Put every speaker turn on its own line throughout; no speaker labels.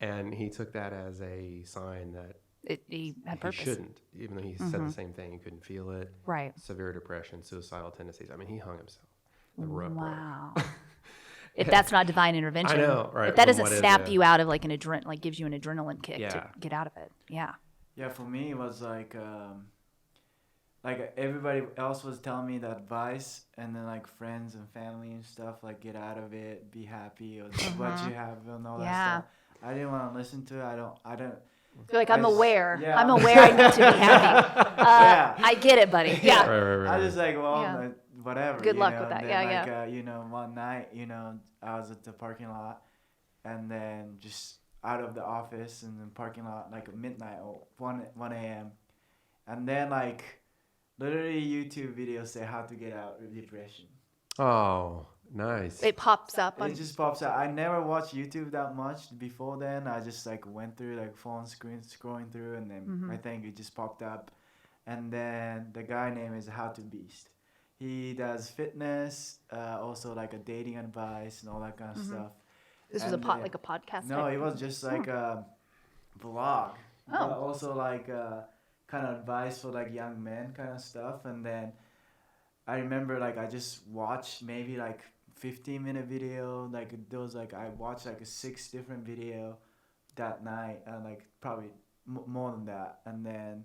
And he took that as a sign that
It, he had
he
purpose. Mm-hmm.
shouldn't, even though he said the same thing. He couldn't feel it.
Right.
Severe depression, suicidal tendencies. I mean, he hung himself. The rough road.
Wow. if that's not divine intervention,
know, right,
If that
then
doesn't
what is
snap
it?
you out of like an adren, like gives you an adrenaline kick to
Yeah.
get out of it. Yeah.
Yeah, for me it was like um, like everybody else was telling me the advice, and then like friends and family and stuff like get out of it, be happy, or what you have and all
Yeah.
that stuff. I didn't want to listen to it. I don't. I don't.
You're like, I'm
I s-
aware.
yeah.
I'm aware I need to be happy. Uh,
Yeah.
I get it, buddy. Yeah.
Right, right, right.
I just like well,
Yeah.
like, whatever.
Good
you
luck
know?
with that.
and
Yeah,
Then, like, Uh, you know, one night, you know, I was at the parking lot, and then just out of the office and then parking lot like at midnight or one one a.m. And then like, literally YouTube videos say how to get out of depression.
oh, nice.
It pops up. On,
It just pops out. I never watched YouTube that much before then. I just like went through like phone screen scrolling through, and then
Mm-hmm.
I think it just popped up. And then the guy name is How to Beast. He does fitness, uh, also like a dating advice and all that kind of stuff.
Mm-hmm. this was a
and
pot,
the-
like a podcast.
No,
type
it was just like a vlog, but also like uh, kind of advice for like young men kind of stuff. And then I remember like I just watched maybe like 15 minute video, like those like I watched like six different video that night, and like probably m- more than that. And then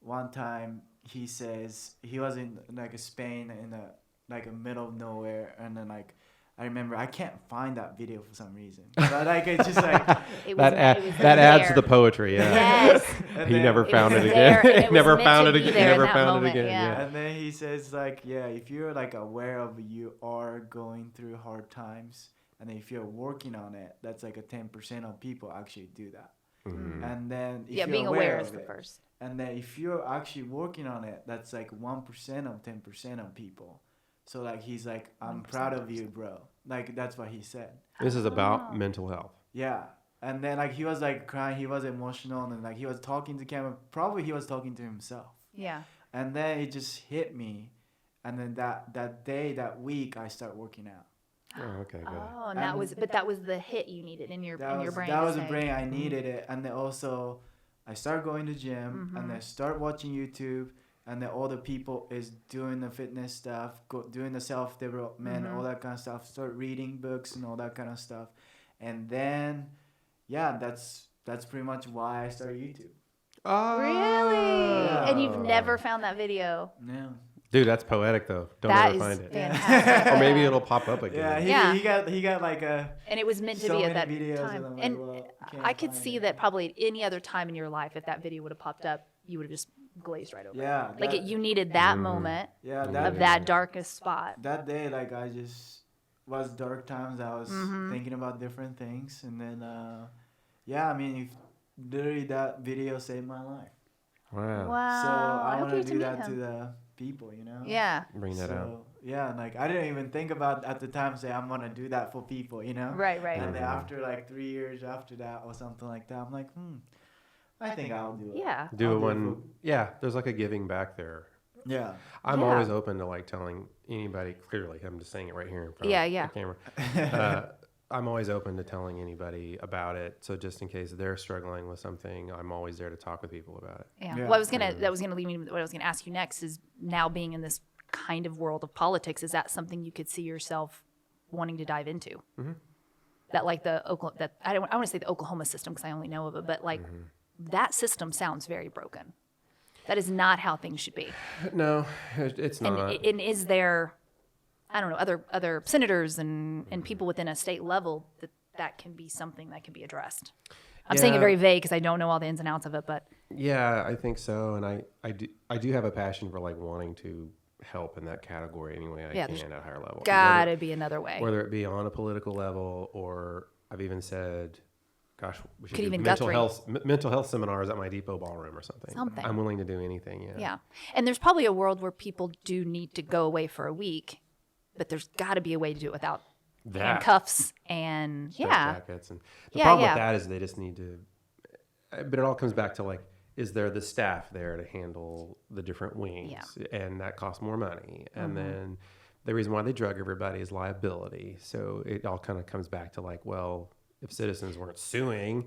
one time he says he was in like a Spain in a like a middle of nowhere, and then like. I remember I can't find that video for some reason. But like it's just like
It was,
that
it was
ad- that adds to
there.
the poetry. Yeah.
Yes.
and
he
then-
never
was
found it
there,
again.
and it was
never
meant
found
to
it
be
again.
there in
Never
that
found it
moment,
again.
yeah.
Yeah.
And then he says like, yeah, if you're like aware of you are going through hard times, and if you're working on it, that's like a ten percent of people actually do that.
Mm-hmm.
And then if
Yeah,
you're
being aware is
of
the
it,
first.
And then if you're actually working on it, that's like one percent of ten percent of people. So like he's like, I'm proud of you, bro. Like that's what he said.
This is about mental health.
Yeah. And then like he was like crying, he was emotional, and then like he was talking to camera. Probably he was talking to himself
Yeah.
and then it just hit me and then that that day that week i start working out
Oh, okay, good.
Oh, and that
And-
was, but that was the hit you needed in your
that
in
was
your brain.
that
to
was a
say,
brain i needed it and then also i start going to gym and then
Mm-hmm.
I start watching youtube and then all the people is doing the fitness stuff go, doing the self-development
Mm-hmm.
all that kind of stuff start reading books and all that kind of stuff and then yeah that's that's pretty much why i started youtube
Oh.
Really? And you've never found that video.
yeah
Dude, that's poetic though. Don't
That
ever
is
find it.
fantastic.
Or maybe it'll pop up again.
yeah he,
Yeah.
he got he got like a
and it was meant to
so
be at
many
that
videos
time.
and I'm like,
and
well, can't
I could
find
see
it.
that probably at any other time in your life, if that video would have popped up, you would have just glazed right over. it.
yeah
Like
that-
it, you needed that
Mm.
moment
yeah
of that darkest spot.
that day like i just was dark times i was
Mm-hmm.
thinking about different things and then uh yeah i mean if literally that video saved my life
Wow.
Wow.
so i
hope
want to
you
do
Ah, meet
that to
him.
the people you know
Yeah.
Bring that out.
so yeah like i didn't even think about at the time say i'm gonna do that for people you know
Right, right.
and then
Mm-hmm.
after like three years after that or something like that i'm like hmm i think i'll do it
Yeah.
Do
I'll
it
do it
when yeah, there's like a giving back there.
yeah
I'm
Yeah.
always open to like telling anybody clearly. I'm just saying it right here in front
Yeah,
of
yeah.
the camera. Uh, I'm always open to telling anybody about it. So just in case they're struggling with something, I'm always there to talk with people about it.
Yeah.
Yeah.
Well, I was gonna that was gonna lead me. to What I was gonna ask you next is now being in this kind of world of politics, is that something you could see yourself wanting to dive into?
Mm-hmm.
That like the Oklahoma that I don't I want to say the Oklahoma system because I only know of it, but like
Mm-hmm.
that system sounds very broken. That is not how things should be.
No, it- it's
And,
not.
and is there, I don't know, other other senators and and people
Mm-hmm.
within a state level that that can be something that can be addressed. I'm saying it
Yeah.
very vague because I don't know all the ins and outs of it, but
Yeah, I think so, and I I do I do have a passion for like wanting to help in that category anyway I
Yeah, there's
can at a higher level.
gotta be another way.
whether, whether it be on a political level or I've even said, gosh, we should
Could
do
even
mental
Guthrie.
health m- mental health seminars at my depot ballroom or something.
Something.
I'm willing to do anything. Yeah.
Yeah. And there's probably a world where people do need to go away for a week, but there's got to be a way to do it without
That.
handcuffs and
Straight
yeah.
Jackets and the
Yeah,
problem
yeah.
with that is they just need to. uh, But it all comes back to like, is there the staff there to handle the different wings? And that costs more money.
Mm-hmm.
And then the reason why they drug everybody is liability. So it all kind of comes back to like, well, if citizens weren't suing,